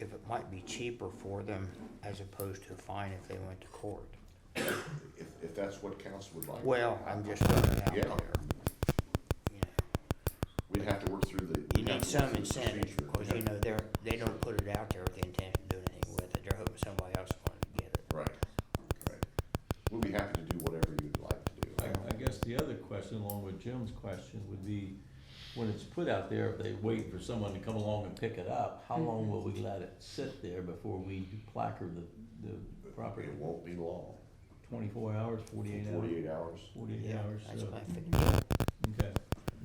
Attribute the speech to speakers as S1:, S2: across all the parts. S1: it might be cheaper for them as opposed to a fine if they went to court.
S2: if, if that's what council would like.
S1: Well, I'm just throwing it out
S2: Yeah.
S1: there. you know.
S2: We'd have to work through the.
S1: You
S2: we'd have
S1: need
S2: to
S1: some
S2: work through the
S1: incentive,
S2: procedure.
S1: because you know, they're, they don't put it out there with the intent of doing anything with it, they're hoping somebody else will get it.
S2: Right, right. We'll be happy to do whatever you'd like to do.
S3: I, I guess the other question, along with Jim's question, would be, when it's put out there, if they wait for someone to come along and pick it up, how
S1: Mm-hmm.
S3: long will we let it sit there before we placard the, the property?
S2: It won't be long,
S3: Twenty-four hours, forty-eight hours?
S2: forty-eight hours.
S3: Forty-eight
S1: Yeah,
S3: hours,
S1: That's
S3: so-
S1: what I figured,
S3: okay,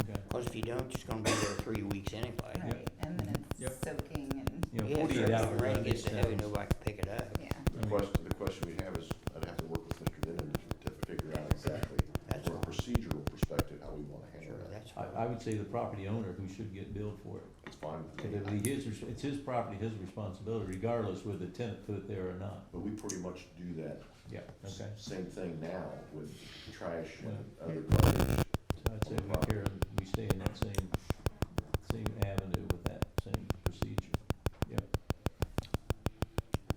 S3: okay.
S1: because if you don't, it's gonna be there three weeks anyway.
S4: Right, and then it's
S3: Yep.
S4: soaking and,
S3: You know,
S1: Yeah, if
S3: forty-eight
S1: the
S3: hours, I
S1: rain
S3: think
S1: gets
S3: sounds-
S1: heavy, nobody can pick it up,
S4: yeah.
S3: I
S2: The
S3: mean,
S2: question, the question we have is, I'd have to work with Mr. Denon to figure out exactly,
S1: That's
S2: from a
S1: all.
S2: procedural perspective, how we wanna
S1: sure,
S2: handle that.
S1: that's
S3: I, I would say the property owner who should get billed for it,
S2: It's fine with
S3: If
S2: me.
S3: it be his, res- it's his property, his responsibility, regardless whether the tenant put it there or not,
S2: But we pretty much do that
S3: yeah,
S2: s-
S3: okay,
S2: same thing now with trash and other garbage.
S3: so I'd say we care, we stay in that same, same avenue with that same procedure.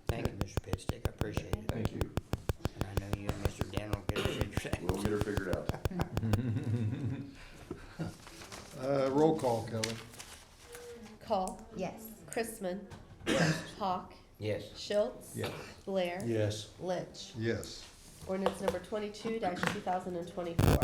S1: Thank you, Mr. Pitstick, I appreciate it,
S2: Thank you.
S1: and I know you and Mr. Dan will get it figured out.
S2: We'll get her figured out.
S5: Uh, roll call, Kelly.
S6: Call.
S4: Yes.
S6: Chrisman. Hawk.
S1: Yes,
S6: Schultz.
S3: Yes.
S6: Blair.
S5: Yes.
S6: Lynch.
S5: Yes.
S6: Ordinance number twenty-two two thousand and twenty-four.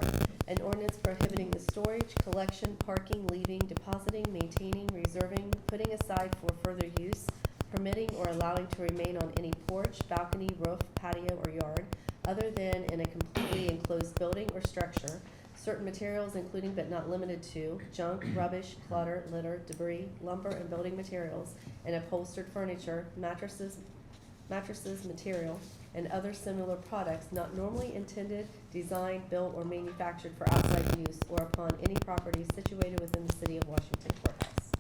S6: An ordinance prohibiting the storage, collection, parking, leaving, depositing, maintaining, reserving, putting aside for further use, permitting or allowing to remain on any porch, balcony, roof, patio, or yard, other than in a completely enclosed building or structure, certain materials including but not limited to junk, rubbish, clutter, litter, debris, lumber, and building materials, and upholstered furniture, mattresses, mattresses, material, and other similar products not normally intended, designed, built, or manufactured for outside use or upon any property situated within the city of Washington courthouse.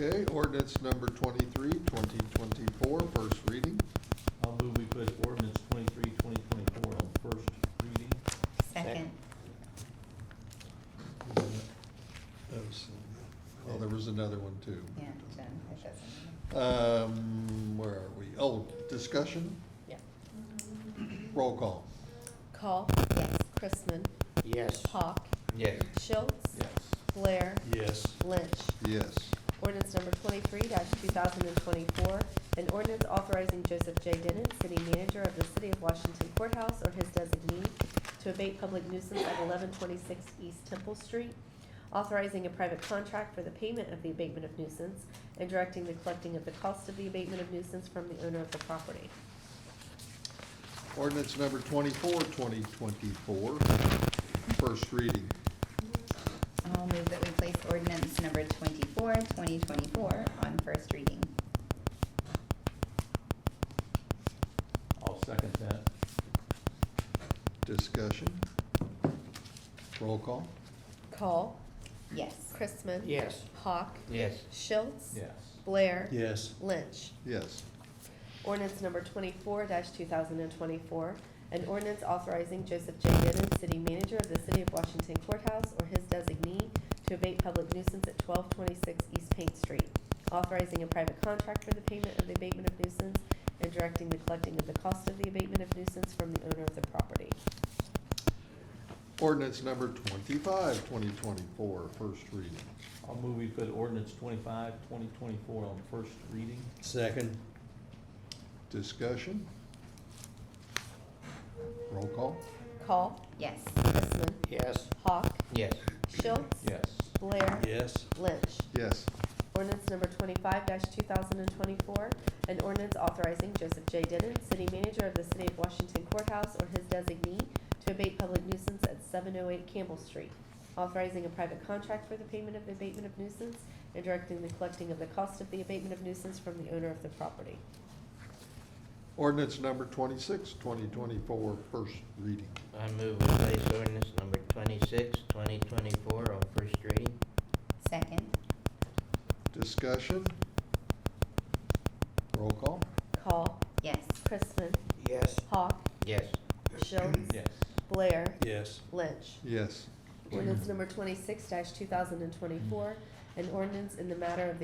S5: Okay, ordinance number 23, 2024, first reading.
S3: I'll move we put ordinance twenty-three, twenty twenty-four on first reading.
S4: Second.
S5: That was- Oh, there was another one too.
S4: Yeah, Jen, it doesn't matter.
S5: Um, where are we? Oh, discussion,
S6: Yeah.
S5: roll call.
S6: Call.
S4: Yes.
S6: Chrisman.
S1: yes.
S6: Hawk.
S1: Yes.
S6: Schultz.
S3: Yes.
S6: Blair.
S5: Yes.
S6: Lynch.
S5: Yes.
S6: Ordinance number twenty-three two thousand and twenty-four, an ordinance authorizing Joseph J. Denon, city manager of the city of Washington courthouse or his designee, to abate public nuisance at eleven twenty-six East Temple Street, authorizing a private contract for the payment of the abatement of nuisance, and directing the collecting of the cost of the abatement of nuisance from the owner of the property.
S5: Ordinance number 24, 2024, first reading.
S4: I'll move that we place ordinance number 24, 2024, on first reading.
S3: I'll second that.
S5: Discussion, roll call.
S6: Call.
S4: Yes.
S6: Chrisman.
S1: Yes.
S6: Hawk.
S1: Yes.
S6: Schultz.
S3: Yes.
S6: Blair.
S5: Yes.
S6: Lynch.
S5: Yes.
S6: Ordinance number twenty-four two thousand and twenty-four, an ordinance authorizing Joseph J. Gannon, city manager of the city of Washington courthouse or his designee, to abate public nuisance at twelve twenty-six East Paint Street, authorizing a private contract for the payment of the abatement of nuisance and directing the collecting of the cost of the abatement of nuisance from the owner of the property.
S5: Ordinance number 25, 2024, first reading.
S3: I'll move we put ordinance twenty-five, twenty twenty-four on first reading.
S5: Second. Discussion. Roll call.
S6: Call.
S4: Yes.
S6: Chrisman.
S1: Yes.
S6: Hawk.
S1: Yes.
S6: Schultz.
S3: Yes.
S6: Blair.
S5: Yes.
S6: Lynch.
S5: Yes.
S6: Ordinance number twenty-five two thousand and twenty-four, an ordinance authorizing Joseph J. Denon, city manager of the city of Washington courthouse or his designee, to abate public nuisance at seven oh eight Campbell Street, authorizing a private contract for the payment of the abatement of nuisance and directing the collecting of the cost of the abatement of nuisance from the owner of the property.
S5: Ordinance number 26, 2024, first reading.
S7: I move we place ordinance number twenty-six, twenty twenty-four on first reading.
S4: Second.
S5: Discussion. Roll call.
S6: Call.
S4: Yes.
S6: Chrisman.
S1: Yes.
S6: Hawk.
S7: Yes.
S6: Schultz.
S3: Yes.
S6: Blair.
S5: Yes.
S6: Lynch.
S5: Yes.
S6: Ordinance number twenty-six two thousand and twenty-four, an ordinance in the matter of the